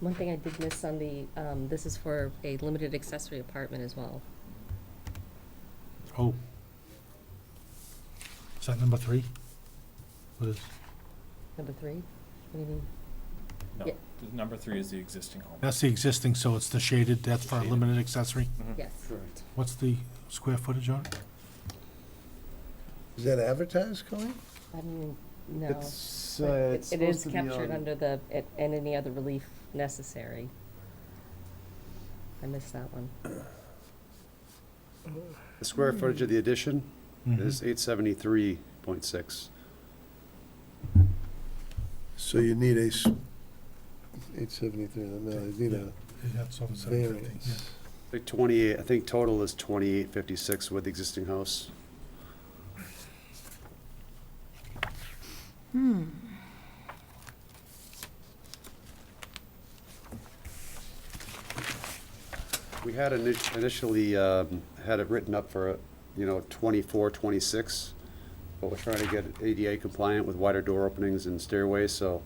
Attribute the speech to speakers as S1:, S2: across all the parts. S1: One thing I did miss on the, um, this is for a limited accessory apartment as well.
S2: Oh. Is that number three? What is,
S1: Number three? What do you mean?
S3: No,
S1: Yeah.
S3: the number three is the existing home.
S2: that's the existing, so it's the shaded, that's for a
S3: Shaded.
S2: limited accessory.
S4: Hmm.
S3: Mhm.
S1: Yes.
S5: Correct.
S2: What's the square footage on it?
S4: Is that advertised, Colleen?
S1: I mean, no.
S5: It's,
S1: But
S5: uh,
S1: it-
S5: it's
S1: It is
S5: supposed to be
S1: captured
S5: on,
S1: under the, it- and any other relief necessary. I missed that one.
S5: the square footage of the addition
S2: Mhm.
S5: is eight seventy-three point six.
S4: So you need a, eight seventy-three, no, you need a
S2: Yeah, That's over seven fifty, yeah.
S4: variance.
S5: The twenty-eight, I think total is twenty-eight fifty-six with the existing house. We had ini- initially, um, had it written up for, you know, twenty-four, twenty-six, but we're trying to get it ADA compliant with wider door openings and stairways, so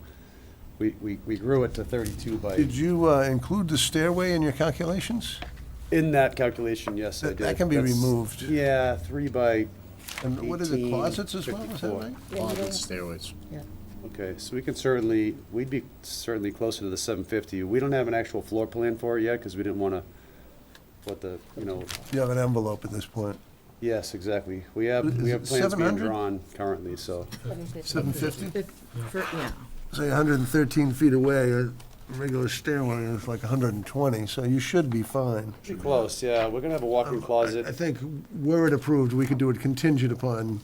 S5: we, we, we grew it to thirty-two by,
S4: Did you uh, include the stairway in your calculations?
S5: in that calculation, yes, I
S4: That-
S5: did.
S4: that can be
S5: That's-
S4: removed.
S5: Yeah, three by,
S4: And what is it, closets as well, is that
S5: 1854.
S4: right?
S6: stairways.
S5: Okay, so we can certainly, we'd be certainly closer to the seven fifty. We don't have an actual floor plan for it yet, because we didn't want to, what the, you know,
S4: You have an envelope at this point.
S5: yes, exactly. We have, we have
S4: Is it
S5: plans being
S4: 700?
S5: drawn currently, so.
S4: Seven fifty?
S6: yeah.
S4: Say hundred and thirteen feet away, a regular stairway is like hundred and twenty, so you should be fine.
S5: Pretty close, yeah. We're gonna have a walk-in
S4: I
S5: closet.
S4: think, were it approved, we could do it contingent upon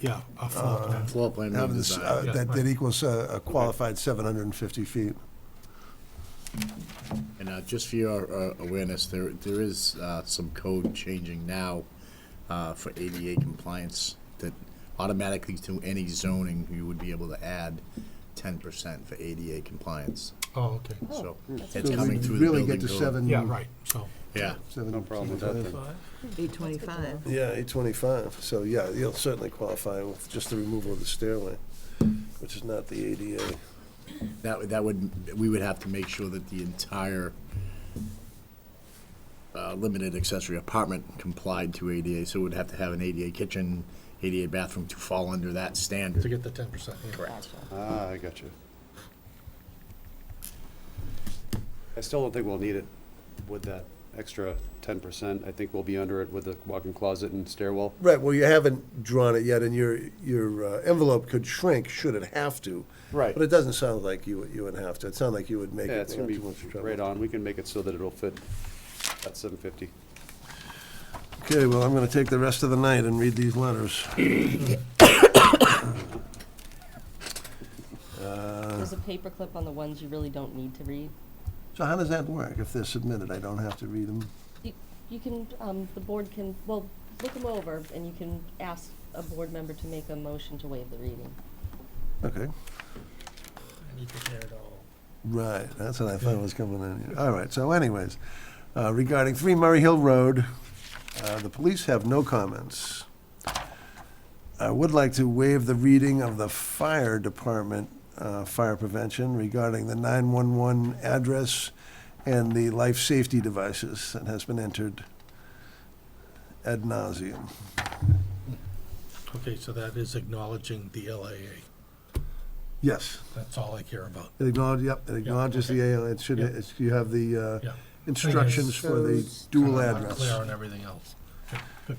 S2: Yeah,
S4: Uh,
S2: a floor plan.
S6: Floor plan
S4: having this,
S6: redesign.
S4: uh, that, that equals uh, a qualified seven hundred and fifty feet.
S6: And uh, just for your uh, awareness, there, there is uh, some code changing now uh, for ADA compliance that automatically to any zoning, you would be able to add ten percent for ADA compliance.
S2: Oh, okay.
S6: So
S4: So
S6: it's
S4: we
S6: coming through the
S4: Really get
S6: building
S4: to
S6: code.
S4: seven.
S2: Yeah, right, so,
S6: Yeah,
S4: seven-
S5: No problem with that then.
S7: 825.
S4: Yeah, eight twenty-five, so yeah, you'll certainly qualify with just the removal of the stairway, which is not the ADA.
S6: that, would- that would, we would have to make sure that the entire uh, limited accessory apartment complied to ADA, so we'd have to have an ADA kitchen, ADA bathroom to fall under that standard.
S2: to get the ten percent,
S6: Correct.
S5: Ah, I got you. I still don't think we'll need it with that extra ten percent. I think we'll be under it with the walk-in closet and stairwell.
S4: Right, well, you haven't drawn it yet, and your, your uh, envelope could shrink should it have to.
S5: Right.
S4: But it doesn't sound like you, would- you would have to, it sounded like you would make it.
S5: Yeah, it's gonna
S4: without
S5: be
S4: too much trouble.
S5: right on. We can make it so that it'll fit at seven fifty.
S4: Okay, well, I'm gonna take the rest of the night and read these letters. Uh,
S1: There's a paperclip on the ones you really don't need to read.
S4: So how does that work? If they're submitted, I don't have to read them?
S1: You, you can, um, the board can, well, look them over and you can ask a board member to make a motion to waive the reading.
S4: Okay.
S8: I need to hear it all.
S4: Right, that's what I thought was coming in. here. All right, so anyways, uh, regarding 3 Murray Hill Road, uh, the police have no comments. I would like to waive the reading of the fire department, uh, fire prevention regarding the 911 address and the life safety devices that has been entered ad nauseum.
S2: Okay, so that is acknowledging the LAA,
S4: Yes,
S2: that's all I care about.
S4: it acknowledges, yep, it acknowledges the, AL. it should,
S2: Yeah.
S4: it's- you have the uh,
S2: Yeah.
S4: instructions for the
S8: Shows-
S4: dual
S2: Kinda
S4: address.
S2: Clear on everything else.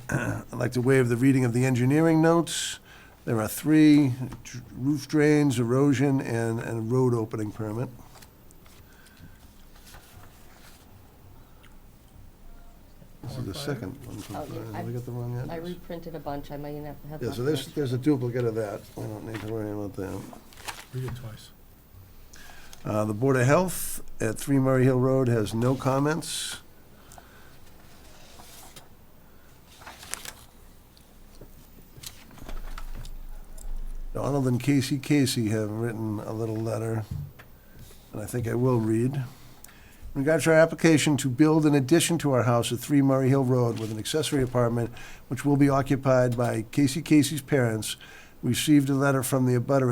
S4: I'd like to waive the reading of the engineering notes. There are three, dr- roof drains, erosion, and, and a road opening permit. This is the second one from
S1: Oh, yeah,
S4: Brian.
S1: I-
S4: Have I got the wrong
S1: I
S4: address?
S1: reprinted a bunch, I might have. have
S4: Yeah,
S1: left
S4: so
S1: an
S4: there's,
S1: extra.
S4: there's a duplicate of that. We don't need to worry about that.
S2: Read it twice.
S4: Uh, The Board of Health at 3 Murray Hill Road has no comments. Donald and Casey Casey have written a little letter, and I think I will read. In regards to our application to build an addition to our house at 3 Murray Hill Road with an accessory apartment which will be occupied by Casey Casey's parents, we received a letter from the abutter at